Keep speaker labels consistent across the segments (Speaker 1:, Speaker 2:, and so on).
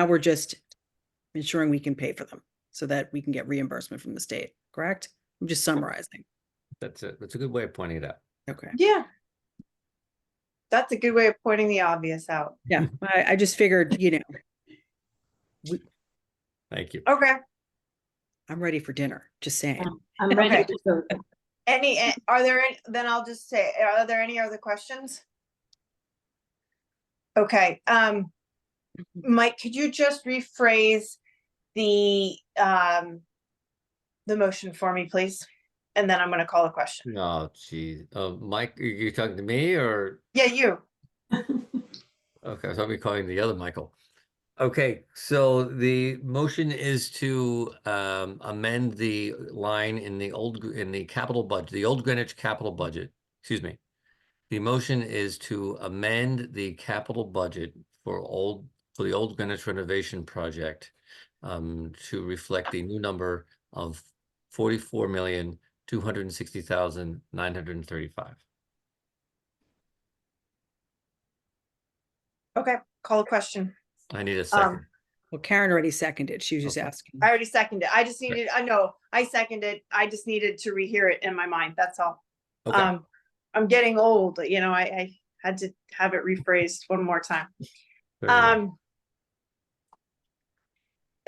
Speaker 1: Now we're just ensuring we can pay for them so that we can get reimbursement from the state, correct? I'm just summarizing.
Speaker 2: That's it. That's a good way of pointing it out.
Speaker 1: Okay.
Speaker 3: Yeah. That's a good way of pointing the obvious out.
Speaker 1: Yeah, I, I just figured, you know,
Speaker 2: Thank you.
Speaker 3: Okay,
Speaker 1: I'm ready for dinner, just saying.
Speaker 4: I'm
Speaker 3: Okay.
Speaker 4: ready to vote.
Speaker 3: any, eh, are there, any? then I'll just say, are there any other questions? Okay, um, Mike, could you just rephrase the, um, the motion for me, please? And then I'm gonna call a question.
Speaker 2: Oh, geez. Uh, Mike, are you talking to me or?
Speaker 3: Yeah, you.
Speaker 2: Okay, so I'll be calling the other Michael. Okay, so the motion is to um, amend the line in the old, Gr- in the capital budget, the old Greenwich capital budget, excuse me. The motion is to amend the capital budget for old, for the old Greenwich renovation project um, to reflect the new number of forty-four million, two hundred and sixty thousand, nine hundred and thirty-five.
Speaker 3: Okay, call a question.
Speaker 2: I need a second.
Speaker 3: Um,
Speaker 1: Well, Karen already seconded. She was just
Speaker 2: Okay.
Speaker 1: asking.
Speaker 3: I already seconded. I just needed, I know, I seconded. I just needed to rehear it in my mind. That's all.
Speaker 2: Okay.
Speaker 3: Um, I'm getting old, you know, I, I had to have it rephrased one more time.
Speaker 2: very well.
Speaker 3: Um.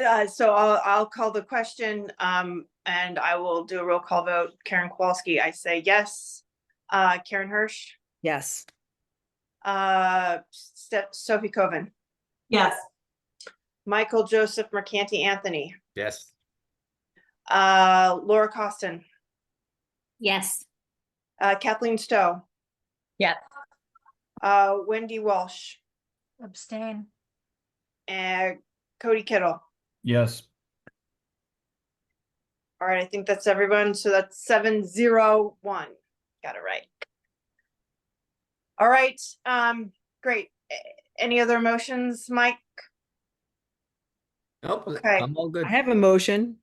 Speaker 3: Uh, so I'll, I'll call the question, um, and I will do a roll call vote. Karen Kowalski, I say yes. Uh, Karen Hirsch,
Speaker 1: Yes,
Speaker 3: uh, Ste- Sophie Coven,
Speaker 4: Yes,
Speaker 3: Michael Joseph Mercanti Anthony,
Speaker 2: Yes.
Speaker 3: uh, Laura Costin,
Speaker 5: Yes,
Speaker 3: uh, Kathleen Stowe.
Speaker 4: Yes.
Speaker 3: Uh, Wendy Walsh
Speaker 5: abstain.
Speaker 3: and Cody Kittle.
Speaker 6: Yes,
Speaker 3: All right, I think that's everyone. So that's seven zero one. Got it right. All right, um, great. A- Any other motions, Mike?
Speaker 2: Nope,
Speaker 3: Okay.
Speaker 2: I'm all good.
Speaker 1: I have a motion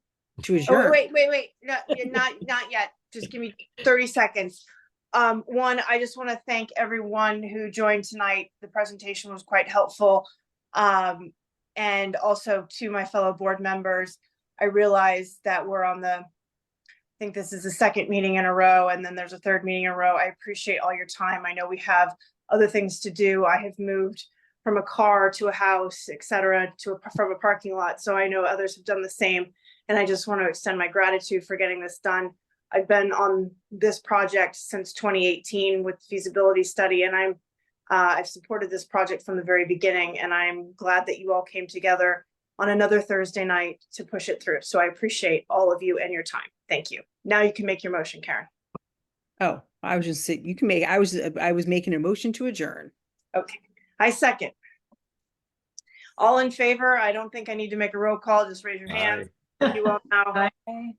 Speaker 1: to
Speaker 3: Oh, wait,
Speaker 1: adjourn.
Speaker 3: wait, wait, wait, no, yeah, not, not yet. Just give me thirty seconds. Um, one, I just want to thank everyone who joined tonight. The presentation was quite helpful. Um, and also to my fellow board members, I realize that we're on the, I think this is the second meeting in a row, and then there's a third meeting in a row. I appreciate all your time. I know we have other things to do. I have moved from a car to a house, et cetera, to a, from a parking lot. So I know others have done the same. And I just want to extend my gratitude for getting this done. I've been on this project since 2018 with feasibility study and I'm, uh, I've supported this project from the very beginning and I'm glad that you all came together on another Thursday night to push it through. So I appreciate all of you and your time. Thank you. Now you can make your motion, Karen.
Speaker 1: Oh, I was just, saying- you can make, I was, I was making a motion to adjourn.
Speaker 3: I second. All in favor? I don't think I need to make a roll call. Just raise your hand. You all know.
Speaker 5: Okay.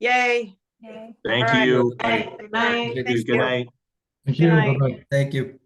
Speaker 3: Yay.
Speaker 5: Yay.
Speaker 3: All right.
Speaker 7: Thank you.
Speaker 3: Good night.
Speaker 2: Thank you.
Speaker 3: Thank you.
Speaker 7: Good night.
Speaker 6: thank you.
Speaker 3: night.
Speaker 6: Bye-bye.
Speaker 2: Thank you.